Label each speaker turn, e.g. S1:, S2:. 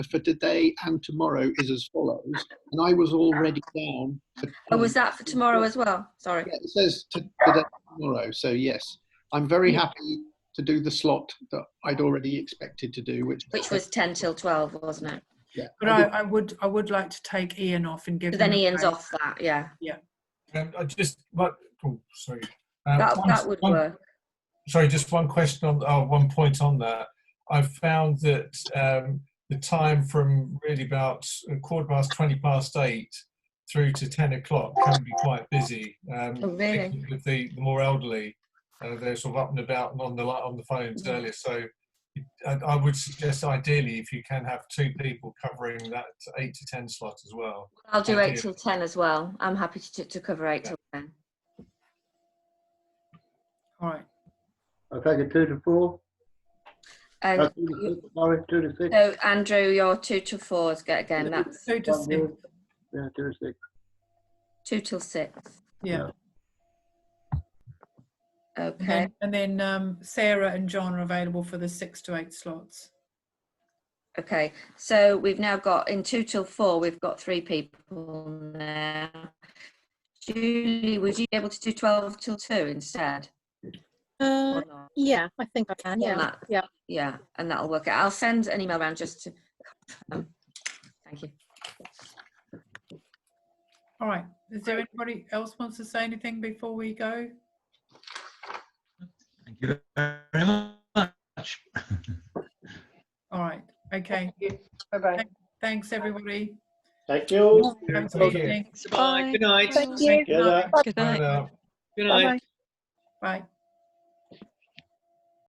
S1: for today and tomorrow is as follows. And I was already down. for-
S2: Oh, was
S3: Um,
S2: that for tomorrow as well? Sorry.
S1: Yeah, it says to, today, tomorrow. So yes, I'm very happy to do the slot that I'd already expected to do, which
S2: Which was 10 till 12, wasn't it?
S1: yeah.
S4: But I, I would, I would like to take Ian off and give.
S2: But
S3: Mm-hmm.
S2: then
S4: him a
S2: Ian's
S4: break.
S2: off that, yeah.
S3: Um, I just, but, oh, sorry. Uh,
S2: That,
S3: one-
S2: that would
S3: one-
S2: work.
S3: Sorry, just one question on, oh, one point on that. I've found that um, the time from really about a quarter past, 20 past eight through to 10 o'clock can be quite busy. Um,
S2: Oh, really?
S3: particularly With the, the more elderly, uh, they're sort of up and about and on the, li- on the phones
S2: Mm-hmm.
S3: earlier. So I, I would suggest ideally if you can have two people covering that eight to 10 slot as well.
S2: I'll do
S3: Thank
S2: 8
S3: you.
S2: till 10 as well. I'm happy to, to cover 8
S3: Yeah.
S2: till 10.
S4: All right.
S5: I'll take it two to four. Uh,
S2: Um,
S5: two to six, Sorry, two to six.
S2: so, Andrew, your 2 till 4 is good again.
S5: Yeah.
S2: That's
S4: So does,
S5: One more. Yeah, two to six.
S2: 2 till 6.
S4: yeah.
S3: Mm-hmm.
S4: And
S2: Okay.
S4: then, and then um, Sarah and John are available for the six to eight slots.
S2: Okay, so we've now got in two till four, we've got three people now. Julie, would you be able to do 12 till 2 instead?
S6: Uh,
S2: Or not?
S6: yeah, I think I can.
S2: Yeah,
S6: Yeah,
S2: Matt.
S6: yeah.
S2: Yeah, and that'll work out. I'll send an email around just to. Um, thank you.
S4: All right. Is there anybody else wants to say anything before we go?
S7: Thank you very much.
S4: All right. Okay.
S8: Bye-bye.
S4: Thanks, everybody.
S5: Thank you.
S3: Yeah,
S4: Have a
S3: thank
S4: good
S3: you.
S4: evening.
S8: Good night.
S4: Thank you.
S5: Good night.
S3: And, uh,
S8: Good night.
S4: Bye.